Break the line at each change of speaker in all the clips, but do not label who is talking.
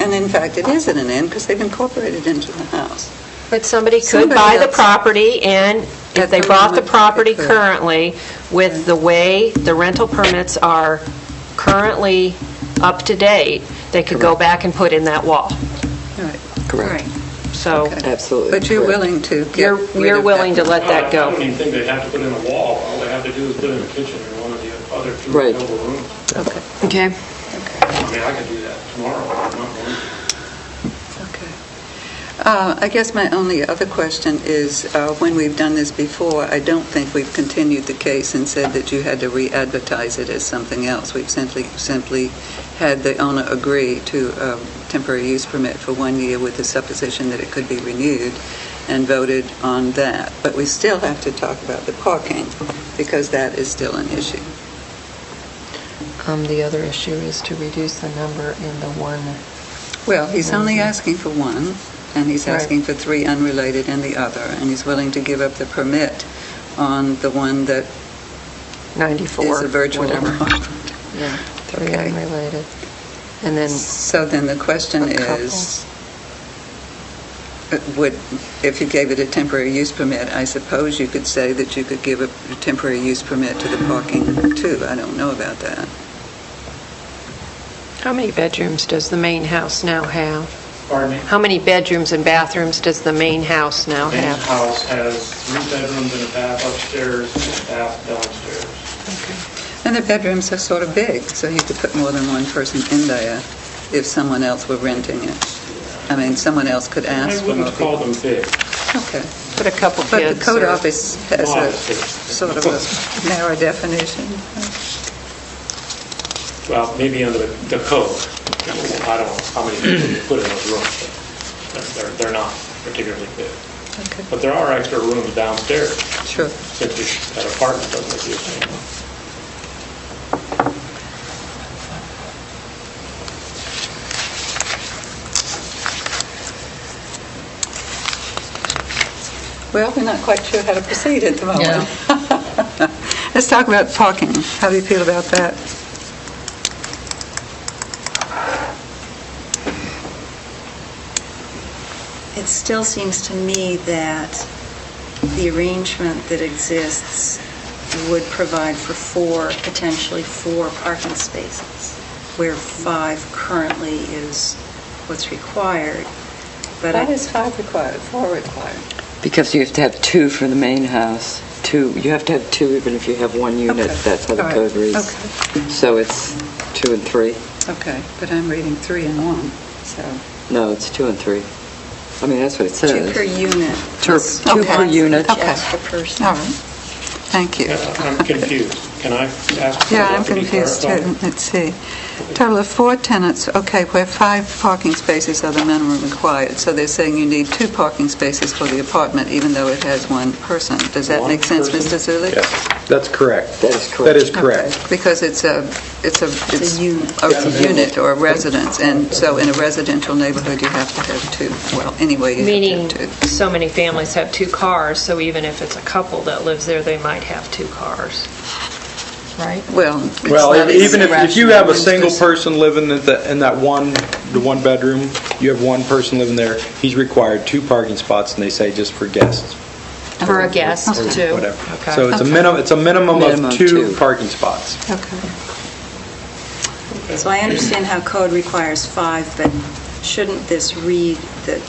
and in fact, it is in an inn because they've incorporated into the house.
But somebody could
Somebody
buy the
else.
property, and
At
if they
the
bought the
moment, they
property
could.
currently, with the way the rental permits are currently up to date, they could go back and put in that wall.
All right.
Correct.
So
Okay.
Absolutely
But you're
correct.
willing to get
you're
rid
you're
of
willing to let that
I
go.
don't even think they have to put in a wall. All they have to do is put in a kitchen in one of the other two
Right.
available rooms.
Okay,
Okay.
I mean, I could do that tomorrow. I'm not going to.
okay. Uh, I guess my only other question is, uh, when we've done this before, I don't think we've continued the case and said that you had to re-advertise it as something else. We've simply, simply had the owner agree to a temporary use permit for one year with the supposition that it could be renewed and voted on that. But we still have to talk about the parking because that is still an issue.
Um, The other issue is to reduce the number in the one
Well, he's only
Mhm.
asking for one, and he's
Right.
asking for three unrelated and the other, and he's willing to give up the permit on the one that
94,
is a virtual
whatever.
apartment.
Yeah, three
Okay.
unrelated. And then,
So then the question
A couple.
is, uh, would, if you gave it a temporary use permit, I suppose you could say that you could give a temporary use permit to the parking too. I don't know about that.
How many bedrooms does the main house now have?
Pardon me?
How many bedrooms and bathrooms does the main house now
Main
have?
house has three bedrooms and a bath upstairs, and a bath downstairs.
And the bedrooms are sort of big, so you could put more than one person in there if someone else were renting it. I mean, someone else could ask
I
for more
wouldn't call
people.
them big.
Okay.
Put a couple kids.
But the code
or-
office has a
Modest is-
sort of a narrow definition.
Well, maybe under the the code. I don't know how many people you put in those rooms, but they're- they're, they're not particularly big.
Okay,
But there are extra rooms downstairs,
sure.
since you- that apartment doesn't exist anymore.
Well, we're not quite sure how to proceed at the
Yeah.
moment. Let's talk about parking. How do you feel about that?
It still seems to me that the arrangement that exists would provide for four, potentially four parking spaces, where five currently is what's required. But I-
That is five required, four required.
because you have to have two for the main house, two, you have to have two even if you have one unit,
Okay.
that's how the
All right.
code reads. So it's two and three?
Okay, okay, but I'm reading three and one, so.
No, it's two and three. I mean, that's what it
two
says.
per unit.
Two-
plus
two per
one
unit.
each
Okay.
extra person.
All right, thank you.
Yeah, I'm confused. Can I ask? for
Yeah,
that
I'm
to be
confused too.
clarified?
Let's see. Total of four tenants, okay, where five parking spaces are the minimum required. So they're saying you need two parking spaces for the apartment, even though it has one person. Does that
One
make sense, Mr.
person?
Zulik?
Yes, that's correct.
That is correct.
That is correct.
Okay, Because it's a, it's a, it's a
unit.
unit or a residence, and so in a residential neighborhood, you have to have two. Well, anyway, you
Meaning,
have to have two.
so many families have two cars, so even if it's a couple that lives there, they might have two cars, right?
Well, it's
Well,
not
even if, if you have a
rational.
single person living in the, in that one, the one bedroom, you have one person living there, he's required two parking spots, and they say just for guests
For a guest,
or
too.
whatever.
Okay.
So it's a minimum, it's a minimum
Minimum
of two
two.
parking spots.
Okay.
So I understand how code requires five, but shouldn't this read that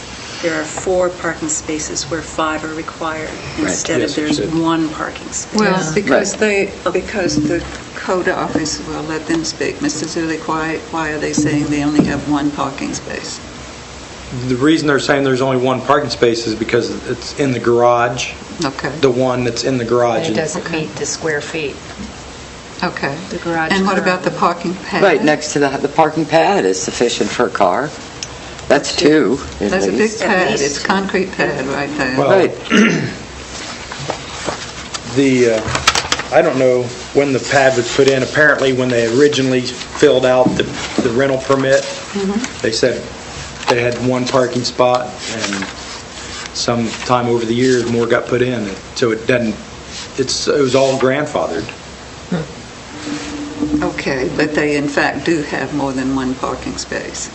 there are four parking spaces where five are required instead
Yes,
of
it
there's
should.
one parking space?
Well, because
Right.
they, because the code office, well, let them speak. Mr. Zulik, why, why are they saying they only have one parking space?
The reason they're saying there's only one parking space is because it's in the garage,
Okay,
the one that's in the
And
garage.
it doesn't meet the square feet.
okay.
The garage
And what about the parking
currently.
pad?
Right, next to the, the parking pad is sufficient for a car. That's two, at
There's a big
least.
pad,
least.
it's concrete pad right there.
Well-
Right,
The, uh, I don't know when the pad was put in. Apparently, when they originally filled out the the rental permit, they said they had one parking spot, and sometime over the years, more got put in. So it doesn't, it's, it was all grandfathered.
Okay, but they in fact do have more than one parking space.